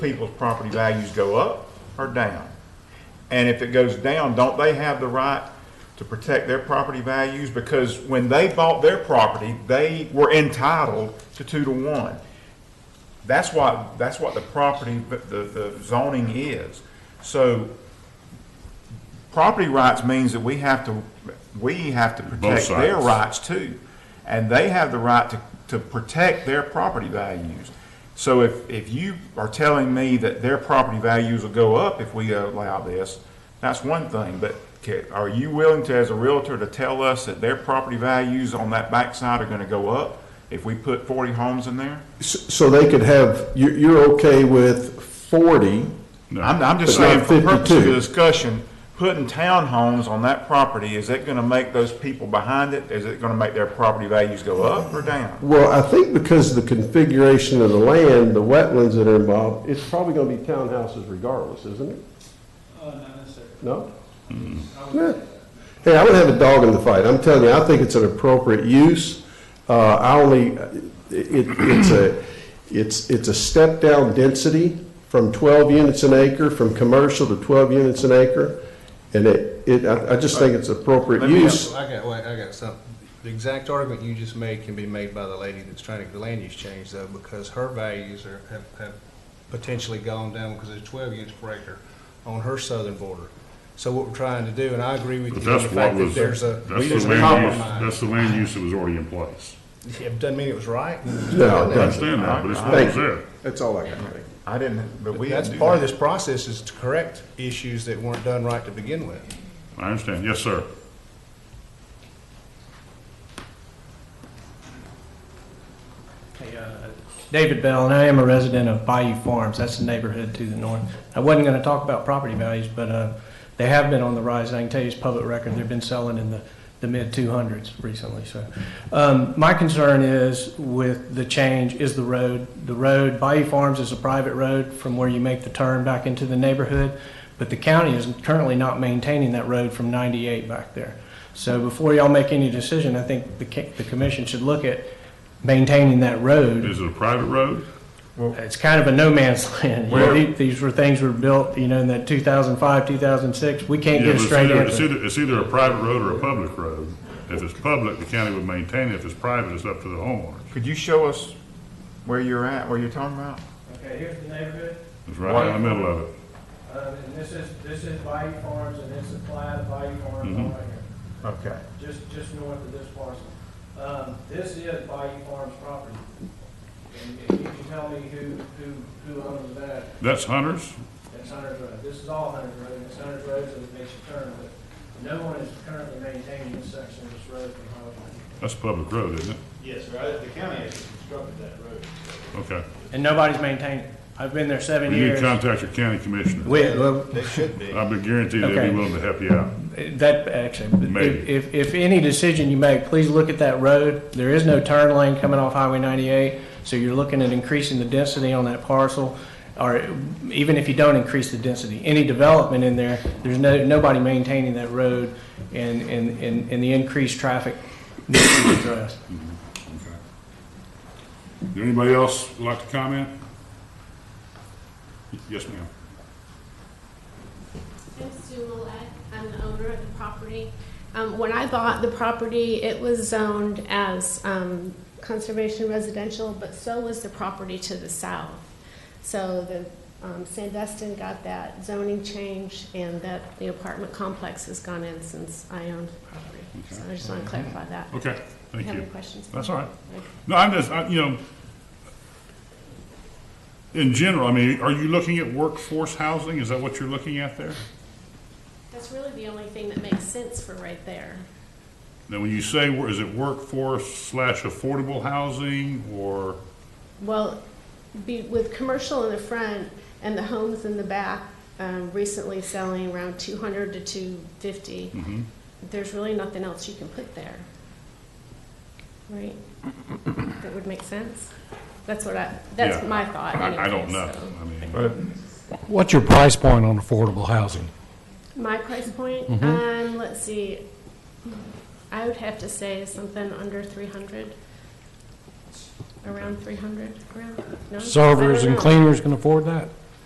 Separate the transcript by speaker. Speaker 1: people's property values go up or down? And if it goes down, don't they have the right to protect their property values? Because when they bought their property, they were entitled to two to one. That's what, that's what the property, the, the zoning is. So property rights means that we have to, we have to protect their
Speaker 2: sides.
Speaker 1: rights too. And they have the right to, to protect their property values. So if, if you are telling me that their property values will go up if we allow this, that's one thing. But ca- are you willing to, as a realtor, to tell us that their property values on that backside are gonna go up if we put forty homes in there?
Speaker 3: S- So they could have, you, you're okay with forty,
Speaker 1: I'm, I'm just
Speaker 3: But
Speaker 1: saying,
Speaker 3: not
Speaker 1: for purposes of
Speaker 3: 52.
Speaker 1: discussion, putting townhomes on that property, is that gonna make those people behind it, is it gonna make their property values go up or down?
Speaker 3: well, I think because of the configuration of the land, the wetlands that are involved, it's probably gonna be townhouses regardless, isn't it?
Speaker 4: Uh, not necessarily.
Speaker 3: No?
Speaker 1: Mm-hmm.
Speaker 3: Yeah. Hey, I would have a dog in the fight. I'm telling you, I think it's an appropriate use. Uh, I only, it, it's a, it's, it's a step down density from twelve units an acre, from commercial to twelve units an acre. And it, it, I, I just think it's appropriate
Speaker 1: Let me
Speaker 3: use.
Speaker 5: I got, wait, I got something. The exact argument you just made can be made by the lady that's trying to get the land use change though, because her values are, have, have potentially gone down because there's twelve units per acre on her southern border. So what we're trying to do, and I agree with
Speaker 2: But
Speaker 5: you on
Speaker 2: that's
Speaker 5: the
Speaker 2: what
Speaker 5: fact that
Speaker 2: was, that's
Speaker 5: there's a,
Speaker 2: the
Speaker 5: there's a
Speaker 2: land use, that's
Speaker 5: compromise.
Speaker 2: the land use that was already in place.
Speaker 5: Yeah, doesn't mean it was right.
Speaker 3: No, it
Speaker 2: I
Speaker 3: doesn't.
Speaker 2: understand that, but it's what
Speaker 3: Thank
Speaker 2: was
Speaker 3: you.
Speaker 2: there.
Speaker 3: That's all I got. Thank you.
Speaker 1: I didn't, but we
Speaker 5: That's
Speaker 1: didn't do
Speaker 5: part of
Speaker 1: that.
Speaker 5: this process is to correct issues that weren't done right to begin with.
Speaker 2: I understand. Yes, sir.
Speaker 4: Hey, uh, David Bell, and I am a resident of Bayou Farms. That's the neighborhood to the north. I wasn't going to talk about property values, but uh, they have been on the rise. I can tell you it's public record. They've been selling in the, the mid 200s recently. So um, my concern is with the change is the road. The road, Bayou Farms is a private road from where you make the turn back into the neighborhood, but the county is currently not maintaining that road from 98 back there. So before y'all make any decision, I think the, ca- the commission should look at maintaining that road.
Speaker 2: Is it a private road?
Speaker 4: It's kind of a no man's land. You know,
Speaker 1: Where-
Speaker 4: the- These were things were built, you know, in that 2005, 2006. We can't
Speaker 2: Yeah, but
Speaker 4: get a
Speaker 2: it's
Speaker 4: straight
Speaker 2: either- It's
Speaker 4: answer.
Speaker 2: either, it's either a private road or a public road. If it's public, the county would maintain it. If it's private, it's up to the homeowner.
Speaker 1: Could you show us where you're at, where you're talking about?
Speaker 4: Okay, here's the neighborhood. Um,
Speaker 2: It's right down the middle of it.
Speaker 4: And this is, this is Bayou Farms, and this is Clyde of Bayou Farms
Speaker 2: Mhm.
Speaker 4: right here.
Speaker 1: Okay.
Speaker 4: just, just north of this parcel. Um, this is Bayou Farms property. And if you can tell me who, who, who owns that,
Speaker 2: That's Hunter's?
Speaker 4: that's Hunter's Road. This is all Hunter's Road, and it's Hunter's Road, so it makes a turn, but no one is currently maintaining this section of this road from Highway
Speaker 2: That's a public road, isn't it?
Speaker 6: Yes, sir, I- the county has constructed that road.
Speaker 2: Okay.
Speaker 4: And nobody's maintaining it. I've been there seven
Speaker 2: You need
Speaker 4: years.
Speaker 2: to contact your county commissioner.
Speaker 4: We, well,
Speaker 6: They should be.
Speaker 2: I would guarantee they'd
Speaker 4: Okay.
Speaker 2: be willing to help you out.
Speaker 4: that, actually,
Speaker 2: Maybe.
Speaker 4: if- if, if any decision you make, please look at that road. There is no turn lane coming off Highway 98, so you're looking at increasing the density on that parcel. Or even if you don't increase the density, any development in there, there's no, nobody maintaining that road and, and, and and the increased traffic needs to be addressed.
Speaker 2: Does anybody else like to comment? Yes, ma'am.
Speaker 7: I'm Sue Millette. I'm the owner of the property. Um, when I bought the property, it was zoned as, um, conservation residential, but so was the property to the south. So the, um, Sandestin got that zoning change and that the apartment complex has gone in since I owned the property. So I just want to clarify that.
Speaker 2: Okay,
Speaker 7: Do
Speaker 2: thank
Speaker 7: you have
Speaker 2: you.
Speaker 7: any questions?
Speaker 2: That's all right. No, I'm just, I, you know, in general, I mean, are you looking at workforce housing? Is that what you're looking at there?
Speaker 7: That's really the only thing that makes sense for right there.
Speaker 2: Now, when you say, wor- is it workforce slash affordable housing or,
Speaker 7: Well, be, with commercial in the front and the homes in the back, um, recently selling around two hundred to two fifty,
Speaker 2: mhm.
Speaker 7: there's really nothing else you can put there. Right? That would make sense? That's what I, that's
Speaker 2: Yeah.
Speaker 7: my thought
Speaker 2: I, I don't
Speaker 7: anyways,
Speaker 2: know.
Speaker 7: so.
Speaker 2: I mean,
Speaker 1: But
Speaker 8: What's your price point on affordable housing?
Speaker 7: My price point,
Speaker 2: Mm-hmm.
Speaker 7: um, let's see, I would have to say something under three hundred. Around three hundred, around, no? I
Speaker 8: Servers
Speaker 7: don't
Speaker 8: and
Speaker 7: know.
Speaker 8: cleaners can afford that?